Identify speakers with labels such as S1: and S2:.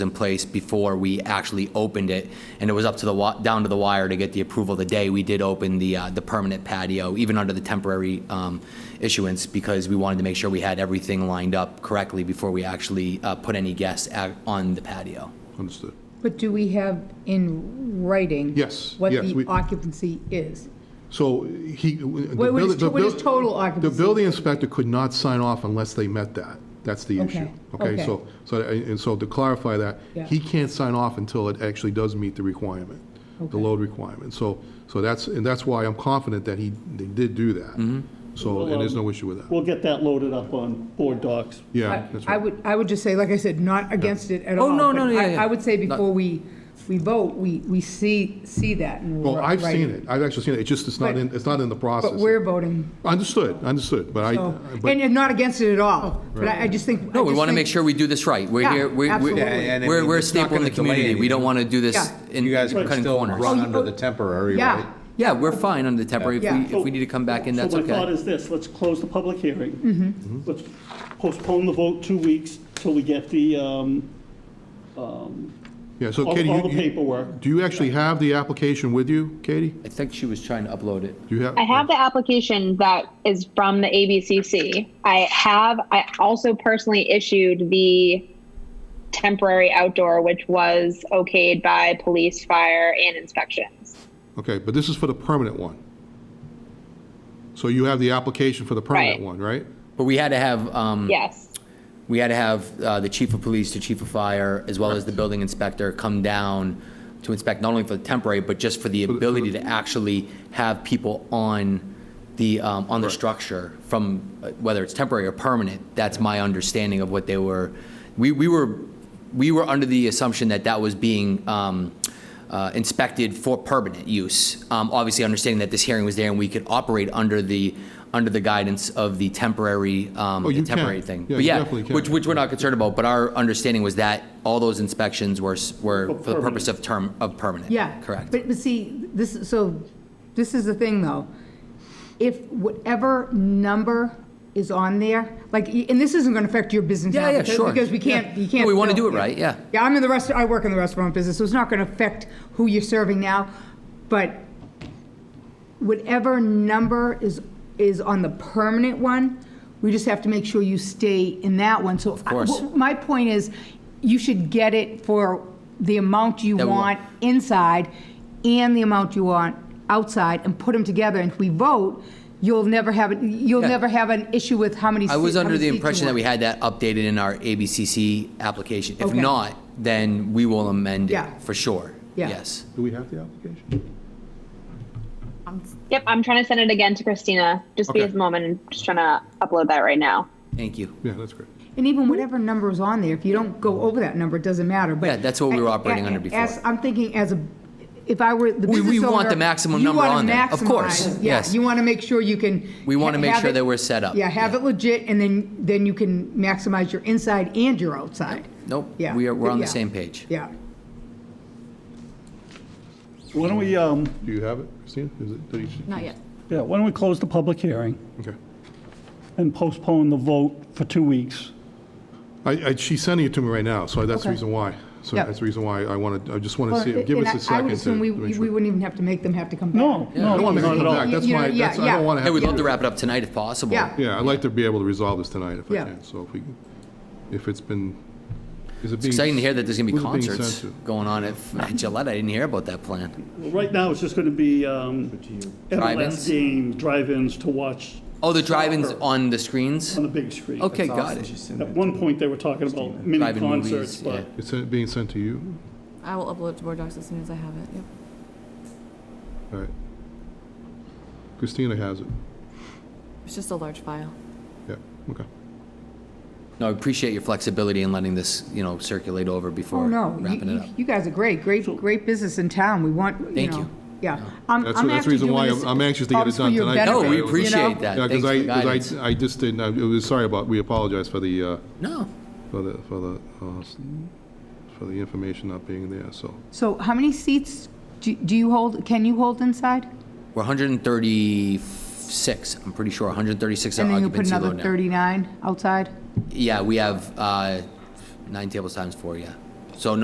S1: in place before we actually opened it, and it was up to the, wi- down to the wire to get the approval the day we did open the, uh, the permanent patio, even under the temporary um, issuance, because we wanted to make sure we had everything lined up correctly before we actually uh, put any guests out on the patio.
S2: Understood.
S3: But do we have in writing?
S2: Yes,
S3: What
S2: yes, we-
S3: the occupancy is?
S2: So he. the
S3: What
S2: building-
S3: is,
S2: the
S3: what is
S2: buil-
S3: total
S2: The
S3: occupancy?
S2: building inspector could not sign off unless they met that. That's the issue.
S3: Okay,
S2: Okay,
S3: okay.
S2: so, so, and so to clarify that,
S3: Yeah.
S2: he can't sign off until it actually does meet the requirement, the
S3: Okay.
S2: load requirement. So, so that's, and that's why I'm confident that he, they did do that. So, and there's no issue with that.
S4: Mm-hmm. We'll get that loaded up on board docs.
S2: Yeah,
S3: I
S2: that's
S3: I
S2: right.
S3: would, I would just say, like I said, not against it at
S1: Oh,
S3: all.
S1: no, no,
S3: but
S1: yeah,
S3: I-
S1: yeah.
S3: I would say
S1: Not-
S3: before we, we vote, we, we see, see that and
S2: Well, I've
S3: write
S2: seen it. I've actually seen it. It's just, it's not
S3: But-
S2: in, it's not in the process.
S3: But we're voting,
S2: Understood, understood, but I, uh,
S3: so,
S2: but, Oh,
S3: and you're not against it at all, but I I just think.
S1: No,
S3: I
S1: we
S3: just
S1: want to
S3: think-
S1: make sure we do this right. We're
S3: Yeah,
S1: here, we're, we're-
S3: absolutely. Yeah,
S5: and I
S1: we're,
S5: mean,
S1: we're a
S5: it's not
S1: staple in
S5: gonna
S1: the community.
S5: delay
S1: We don't want to do this
S3: Yeah.
S1: in
S5: You guys can
S1: cutting
S5: still
S1: corners.
S5: run
S3: Oh,
S5: under
S3: oh,
S5: the temporary, right?
S3: Yeah,
S1: Yeah, we're fine under the temporary. If
S3: Yeah.
S1: we, if we need to come back in, that's
S4: So my thought
S1: okay.
S4: is this, let's close the public hearing.
S2: Mm-hmm.
S4: Let's postpone the vote two weeks till we get the, um,
S2: yeah, so
S4: all
S2: Katie,
S4: all the
S2: you- you,
S4: paperwork.
S2: do you actually have the application with you, Katie?
S1: I think she was trying to upload it.
S2: Do you have?
S6: I have the application that is from the ABCC. I have, I also personally issued the temporary outdoor, which was okayed by police, fire, and inspections.
S2: Okay, but this is for the permanent one. So you have the application for the permanent
S6: Right.
S2: one, right?
S1: But we had to have, um,
S6: Yes.
S1: we had to have uh, the chief of police, the chief of fire, as well as the building inspector come down to inspect not only for the temporary, but just for the
S2: the- for
S1: ability
S2: the-
S1: to actually have people on the, um, on the structure from, uh, whether it's temporary or permanent. That's my understanding of what they were, we, we were, we were under the assumption that that was being um, uh, inspected for permanent use. Um, Obviously, understanding that this hearing was there and we could operate under the, under the guidance of the temporary, um,
S2: Oh, you
S1: the temporary
S2: can.
S1: thing.
S2: Yeah,
S1: But
S2: you definitely can.
S1: Which, which we're not concerned about, but our understanding was that all those inspections were, s- were for the
S4: permanent.
S1: purpose of term, of permanent.
S3: Oh, yeah.
S1: Correct.
S3: But, but see, this, is- so, this is the thing, though. If whatever number is on there, like, y- and this isn't gonna affect your business
S1: Yeah,
S3: now.
S1: yeah,
S3: because-
S1: sure.
S3: Because we can't, you can't.
S1: No, we wanna
S3: fill-
S1: do it right, yeah.
S3: Yeah, I'm in the restaurant, I work in the restaurant business, so it's not gonna affect who you're serving now, but whatever number is, is on the permanent one, we just have to make sure you stay in that one, so. Of
S1: course.
S3: My point is, you should get it for the amount you
S1: That we want.
S3: want inside and the amount you want outside, and put them together, and if we vote, you'll never have, it- you'll
S1: Yeah.
S3: never have an issue with how many.
S1: I was
S3: seat- how
S1: under
S3: many
S1: the
S3: seats you
S1: impression that
S3: want.
S1: we had that updated in our ABCC application. If
S3: Okay.
S1: not, then we will amend it,
S3: Yeah.
S1: for sure.
S3: Yeah.
S1: Yes.
S2: Do we have the application?
S6: Yep, I'm trying to send it again to Christina. Just be
S2: Okay.
S6: a moment. I'm just trying to upload that right now.
S1: Thank you.
S2: Yeah, that's great.
S3: And even whatever number is on there, if you don't go over that number, it doesn't matter, but.
S1: Yeah, that's what we were operating under before.
S3: As- I'm thinking as a, if I were the
S1: We-
S3: business
S1: we want
S3: owner,
S1: the maximum
S3: you
S1: number
S3: wanna
S1: on there, of course,
S3: maximize. Yeah,
S1: yes.
S3: You want to make sure you can.
S1: We wanna make
S3: have
S1: sure
S3: it-
S1: that we're set up,
S3: Yeah, have
S1: yeah.
S3: it legit, and then, then you can maximize your inside and your outside.
S1: Nope.
S3: Yeah.
S1: We are, we're on the
S3: Yeah.
S1: same page.
S3: Yeah.
S4: Why don't we, um,
S2: Do you have it, Christina? Is it, did you-
S7: Not yet.
S4: yeah, why don't we close the public hearing
S2: Okay.
S4: and postpone the vote for two weeks?
S2: I, I, she's sending it to me right now, so that's the
S3: Okay.
S2: reason why. So
S3: Yep.
S2: that's the reason why I wanted, I just want to see,
S3: Well,
S2: it. give
S3: and
S2: us a
S3: I- I would
S2: second to
S3: assume we,
S2: to make
S3: we
S2: sure.
S3: wouldn't even have to make them have to come back.
S4: No,
S2: I
S4: no,
S2: don't want to make
S4: not
S2: them
S4: at
S2: come
S4: all.
S2: back, that's
S3: You
S2: why,
S3: know,
S2: that's, I
S3: yeah,
S2: don't want to
S1: Hey,
S2: have.
S1: we'd
S2: to
S1: love to
S2: do it.
S1: wrap it up tonight if possible.
S3: Yeah.
S2: Yeah, I'd like to be able to resolve this tonight if I
S3: Yeah.
S2: can, so if we, can- if it's been, is it being?
S1: It's exciting to hear that there's going to be
S2: who's it being
S1: concerts
S2: sent to?
S1: going on at at Gillette. I didn't hear about that plan.
S4: Right now, it's just going to be um,
S1: Drive-ins?
S4: MLS game, drive-ins to watch
S1: Oh, the drive-ins
S4: Soccer.
S1: on the screens?
S4: on the big screen.
S1: Okay, got it.
S4: At one point, they were talking about mini
S1: Drive-in movies,
S4: concerts,
S1: yeah.
S4: but
S2: It's uh, being sent to you?
S7: I will upload it to Board Docs as soon as I have it. Yep.
S2: All right. Christina has it.
S7: It's just a large file.
S2: Yeah, okay.
S1: No, I appreciate your flexibility in letting this, you know, circulate over
S3: Oh,
S1: before
S3: no,
S1: wrapping
S3: you,
S1: it
S3: you-
S1: up.
S3: you guys are great, great, great business in town, we want, you know.
S1: Thank you.
S3: Yeah. I'm,
S2: That's- that's the
S3: I'm actually
S2: reason
S3: doing
S2: why
S3: this
S2: I'm- I'm anxious to get it
S3: almost for
S2: done
S3: your
S2: tonight. No, we
S3: benefit, you know?
S1: appreciate that.
S2: Yeah,
S1: Thanks for the
S2: because
S1: guidance.
S2: I, I just didn't, I was, sorry about, we apologize for the, uh,
S1: No,
S2: for the, for the, uh, s- for the information not being there, so.
S3: So how many seats do do you hold, can you hold inside?
S1: we're 136, I'm pretty sure, 136
S3: And
S1: are
S3: then you put
S1: occupancy
S3: another
S1: load now.
S3: 39 outside?
S1: Yeah, we have uh, nine tables times four, yeah. So no.